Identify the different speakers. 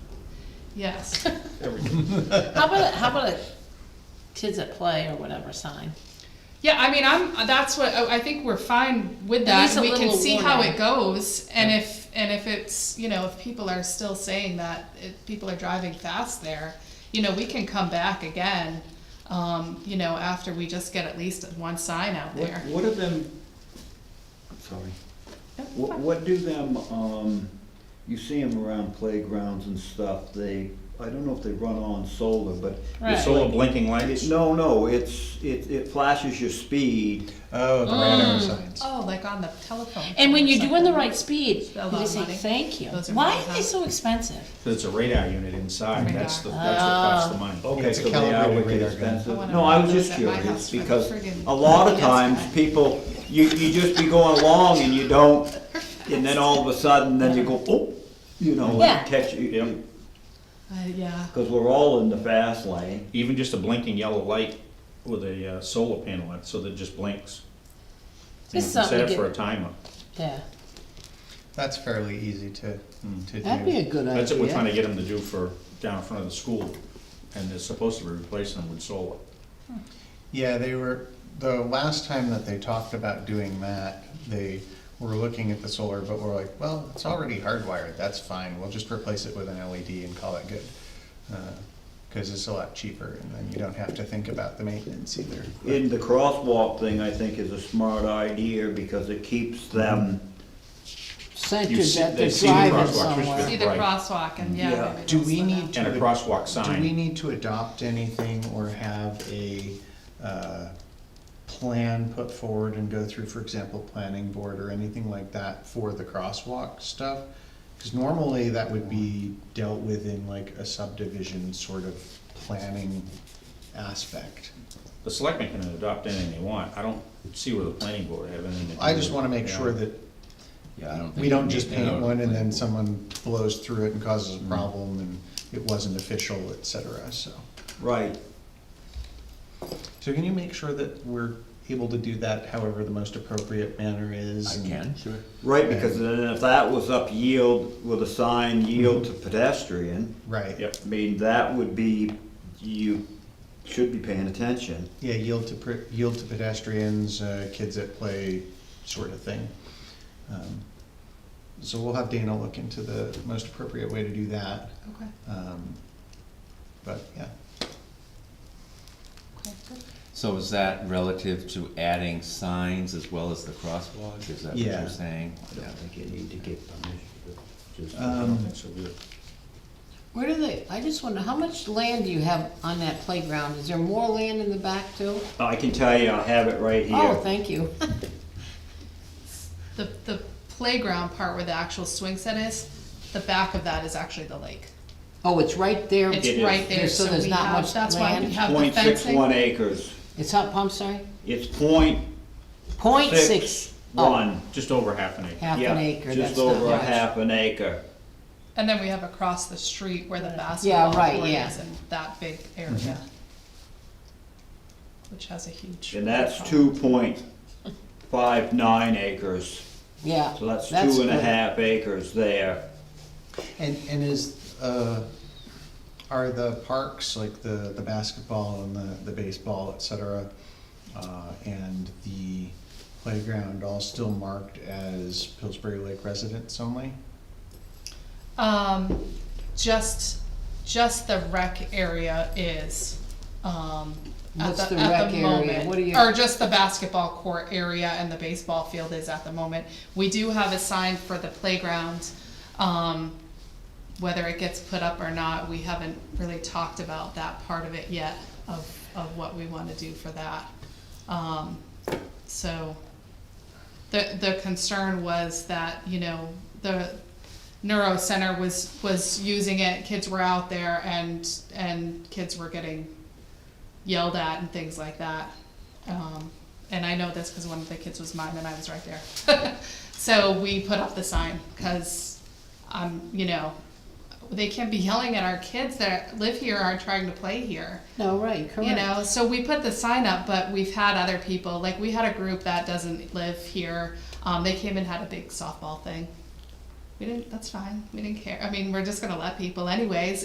Speaker 1: Yes.
Speaker 2: everything.
Speaker 3: How about, a- how about a kids at play or whatever sign?
Speaker 1: Yeah, I mean, I'm. That's what I I think we're fine with
Speaker 3: At
Speaker 1: that.
Speaker 3: least a
Speaker 1: We can
Speaker 3: little
Speaker 1: see how
Speaker 3: warning.
Speaker 1: it goes, and if and if it's you know if people are still saying that if people are driving fast there, you know we can come back again. Um, you know after we just get at least one sign out
Speaker 2: What,
Speaker 1: there.
Speaker 2: what do them, sorry,
Speaker 1: Yep,
Speaker 4: What,
Speaker 1: fine.
Speaker 4: what do them, um, you see them around playgrounds and stuff, they, I don't know if they run on solar, but.
Speaker 3: Right.
Speaker 4: it's
Speaker 2: solar
Speaker 4: like-
Speaker 2: blinking lights?
Speaker 4: No, no, it's, it, it flashes your speed.
Speaker 2: Oh, the radar
Speaker 3: Mm.
Speaker 2: signs.
Speaker 1: Oh, like on the telephone.
Speaker 3: And when
Speaker 1: or
Speaker 3: you're doing the
Speaker 1: something.
Speaker 3: right speed,
Speaker 1: A
Speaker 3: you
Speaker 1: lot of
Speaker 3: just say,
Speaker 1: money.
Speaker 3: thank you.
Speaker 1: Those are
Speaker 3: Why
Speaker 1: money,
Speaker 3: are they
Speaker 1: huh?
Speaker 3: so expensive?
Speaker 2: So it's a radar unit inside, that's the,
Speaker 1: Radar.
Speaker 2: that's what costs the money.
Speaker 4: Okay,
Speaker 5: Oh. It's a
Speaker 4: so they are
Speaker 5: calibrated
Speaker 4: wicked
Speaker 5: radar gun.
Speaker 1: I
Speaker 4: expensive.
Speaker 1: wanna
Speaker 4: No, I was
Speaker 1: know
Speaker 4: just
Speaker 1: those at my
Speaker 4: curious,
Speaker 1: house for the
Speaker 4: because
Speaker 1: friggin'
Speaker 4: a lot of
Speaker 1: yes
Speaker 4: times,
Speaker 1: guy.
Speaker 4: people, you, you just be going along and you don't, and then all of a sudden, then you go, oh, you know,
Speaker 3: Yeah.
Speaker 4: and catch, you,
Speaker 1: Uh, yeah.
Speaker 4: because we're all in the fast lane.
Speaker 2: Even just a blinking yellow light with a uh, solar panel on it, so that it just blinks. You
Speaker 3: This is
Speaker 2: can
Speaker 3: something
Speaker 2: Set
Speaker 3: to
Speaker 2: it for a
Speaker 3: get,
Speaker 2: timer.
Speaker 3: yeah,
Speaker 5: That's fairly easy to, to do.
Speaker 3: that'd be a good idea.
Speaker 2: That's what we're trying to get them to do for, down in front of the school, and they're supposed to be replacing them with solar.
Speaker 5: Yeah, they were, the last time that they talked about doing that, they were looking at the solar, but were like, well, it's already hardwired, that's fine, we'll just replace it with an LED and call it good. Because it's a lot cheaper, and then you don't have to think about the maintenance either.
Speaker 4: In the crosswalk thing, I think is a smart idea because it keeps them,
Speaker 2: You
Speaker 3: Centered
Speaker 2: see-
Speaker 3: that
Speaker 2: they
Speaker 3: they're
Speaker 2: see the
Speaker 3: driving
Speaker 2: crosswalks, which
Speaker 3: somewhere.
Speaker 1: See the
Speaker 2: Right.
Speaker 1: crosswalk and yeah.
Speaker 4: Yeah.
Speaker 1: maybe
Speaker 5: Do
Speaker 1: they'll
Speaker 5: we
Speaker 1: slow
Speaker 5: need
Speaker 1: down.
Speaker 2: And a crosswalk
Speaker 5: Do we
Speaker 2: sign.
Speaker 5: need to adopt anything or have a uh, plan put forward and go through, for example, planning board or anything like that for the crosswalk stuff? Because normally that would be dealt with in like a subdivision sort of planning aspect.
Speaker 2: The selectmen can adopt anything they want, I don't see where the planning board have anything to do.
Speaker 5: I just
Speaker 2: with
Speaker 5: want to
Speaker 2: it,
Speaker 5: make
Speaker 2: you
Speaker 5: sure
Speaker 2: know?
Speaker 5: that
Speaker 6: Yeah, I don't think.
Speaker 5: we don't
Speaker 6: you
Speaker 5: just
Speaker 6: need to
Speaker 5: paint
Speaker 6: know.
Speaker 5: one and then someone blows through it and causes
Speaker 6: Mm-hmm.
Speaker 5: a problem and it wasn't official, et cetera, so.
Speaker 4: right,
Speaker 5: So can you make sure that we're able to do that however the most appropriate manner is?
Speaker 6: I
Speaker 5: and-
Speaker 6: can, sure.
Speaker 4: right, because then if that was up yield with a sign yield to pedestrian,
Speaker 5: Right.
Speaker 2: Yep.
Speaker 4: I mean, that would be, you should be paying attention.
Speaker 5: Yeah, yield to, pre- yield to pedestrians, uh, kids at play, sort of thing. Um, So we'll have Dana look into the most appropriate way to do that.
Speaker 1: Okay.
Speaker 5: Um, But, yeah,
Speaker 1: Okay. Good.
Speaker 6: So is that relative to adding signs as well as the crosswalk? Is that what
Speaker 5: Yeah.
Speaker 6: you're saying?
Speaker 4: I don't think you need to get permission, just.
Speaker 2: I don't
Speaker 5: Um,
Speaker 2: think so either.
Speaker 3: Where do they, I just wonder, how much land do you have on that playground? Is there more land in the back too?
Speaker 4: I can tell you, I have it right here.
Speaker 3: Oh, thank you.
Speaker 1: The the playground part where the actual swing set is, the back of that is actually the lake.
Speaker 3: Oh, it's right there,
Speaker 1: It's
Speaker 4: It is.
Speaker 1: right there,
Speaker 3: There's- so
Speaker 1: so
Speaker 3: there's
Speaker 1: we
Speaker 3: not
Speaker 1: have,
Speaker 3: much
Speaker 1: that's why we
Speaker 3: land?
Speaker 1: have the
Speaker 4: Point six one
Speaker 1: fencing.
Speaker 4: acres,
Speaker 3: it's up, I'm sorry,
Speaker 4: it's point
Speaker 3: point
Speaker 4: six
Speaker 3: six, oh,
Speaker 4: one.
Speaker 2: Just over half an acre.
Speaker 3: half
Speaker 4: Yeah,
Speaker 3: an acre, that's
Speaker 4: Just
Speaker 3: not
Speaker 4: over a
Speaker 3: much.
Speaker 4: half an acre.
Speaker 1: And then we have across the street where the
Speaker 3: Yeah,
Speaker 1: basketball
Speaker 3: right,
Speaker 1: court
Speaker 3: yeah.
Speaker 1: is and that big area.
Speaker 4: Mm-hmm.
Speaker 1: Which has a huge.
Speaker 4: And that's
Speaker 1: playground.
Speaker 4: two point five nine acres,
Speaker 3: Yeah.
Speaker 4: so that's two and a
Speaker 3: good.
Speaker 4: half acres there.
Speaker 5: and, and is, uh, are the parks, like the, the basketball and the, the baseball, et cetera, uh, and the playground all still marked as Pillsbury Lake residents only?
Speaker 1: Um, just, just the rec area is, um, at
Speaker 3: What's
Speaker 1: the,
Speaker 3: the
Speaker 1: at
Speaker 3: rec
Speaker 1: the
Speaker 3: area?
Speaker 1: moment.
Speaker 3: What do you-
Speaker 1: Or just the basketball court area and the baseball field is at the moment. We do have a sign for the playground, um, whether it gets put up or not, we haven't really talked about that part of it yet, of, of what we wanna do for that. Um, so, the, the concern was that, you know, the neuro center was, was using it, kids were out there and, and kids were getting yelled at and things like that. Um, and I know this because one of the kids was mine and I was right there. so we put up the sign because, um, you know, they can't be yelling at our kids that live here, are trying to play here.
Speaker 3: No, right, correct.
Speaker 1: You know, so we put the sign up, but we've had other people, like we had a group that doesn't live here. Um, they came and had a big softball thing. We didn't, that's fine. We didn't care. I mean, we're just gonna let people anyways.